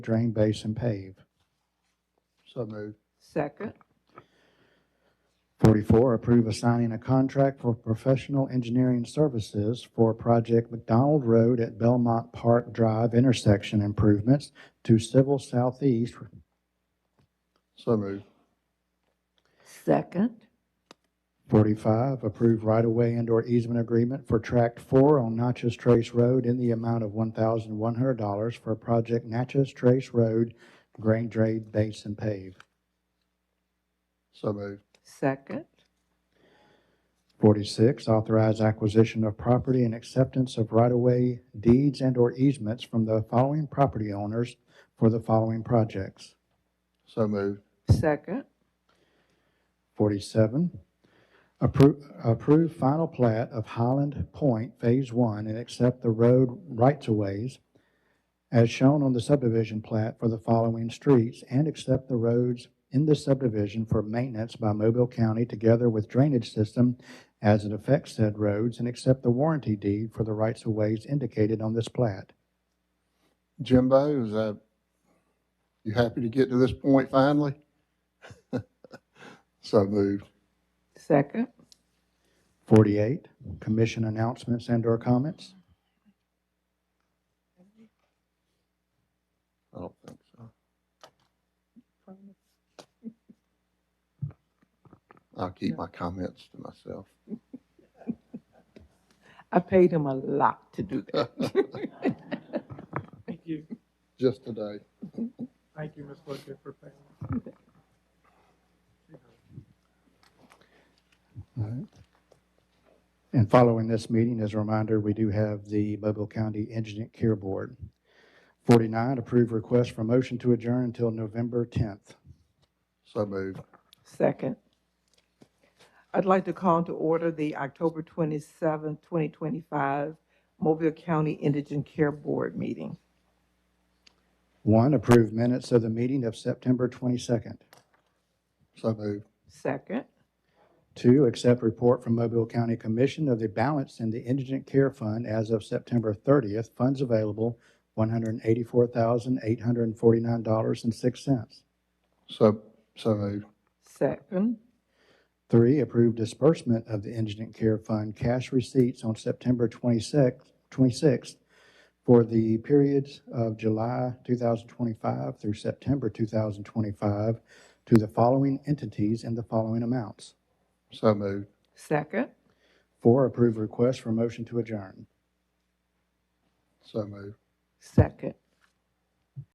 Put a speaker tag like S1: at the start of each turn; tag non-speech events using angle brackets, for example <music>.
S1: drain base and pave. So moved.
S2: Second,
S1: Forty-four, approve assigning a contract for professional engineering services for Project McDonald Road at Belmont Park Drive intersection improvements to Civil Southeast. So moved.
S2: second,
S1: Forty-five, approve right-of-way and/or easement agreement for Tract Four on Natchez Trace Road in the amount of one thousand one hundred dollars for Project Natchez Trace Road, grain drain base and pave. So moved.
S2: second,
S1: 46, authorize acquisition of property and acceptance of right-of-way deeds and/or easements from the following property owners for the following projects. So moved.
S2: second,
S1: 47, appro- approve final plat of Highland Point Phase 1 and accept the road rights-of-ways as shown on the subdivision plat for the following streets and accept the roads in the subdivision for maintenance by Mobile County together with drainage system as it affects said roads and accept the warranty deed for the rights-of-ways indicated on this plat.
S3: Jimbo, is that, you happy to get to this point finally? <laughs> So moved.
S2: second,
S1: 48, commission announcements and/or comments.
S3: I don't think so. I'll keep my comments to myself.
S2: I paid him a lot to do that.
S4: Thank you.
S3: Just today.
S4: Thank you, Ms. Lookit, for paying.
S1: And following this meeting, as a reminder, we do have the Mobile County Indigent Care Board. 49, approve request for motion to adjourn until November 10th.
S3: So moved.
S2: Second. I'd like to call to order the October twenty-seventh, twenty twenty-five Mobile County Indigent Care Board meeting.
S1: One, approve minutes of the meeting of September 22nd.
S3: So moved.
S2: Second,
S1: Two, accept report from Mobile County Commission of the balance in the Indigent Care Fund as of September 30th. Funds available, $184,849.06.
S3: So, so moved.
S2: second,
S1: Three, approve disbursement of the Indigent Care Fund cash receipts on September 26th 26th for the periods of July 2025 through September 2025 to the following entities in the following amounts.
S3: So moved.
S2: second,
S1: Four, approve request for motion to adjourn.
S3: So moved.
S2: second,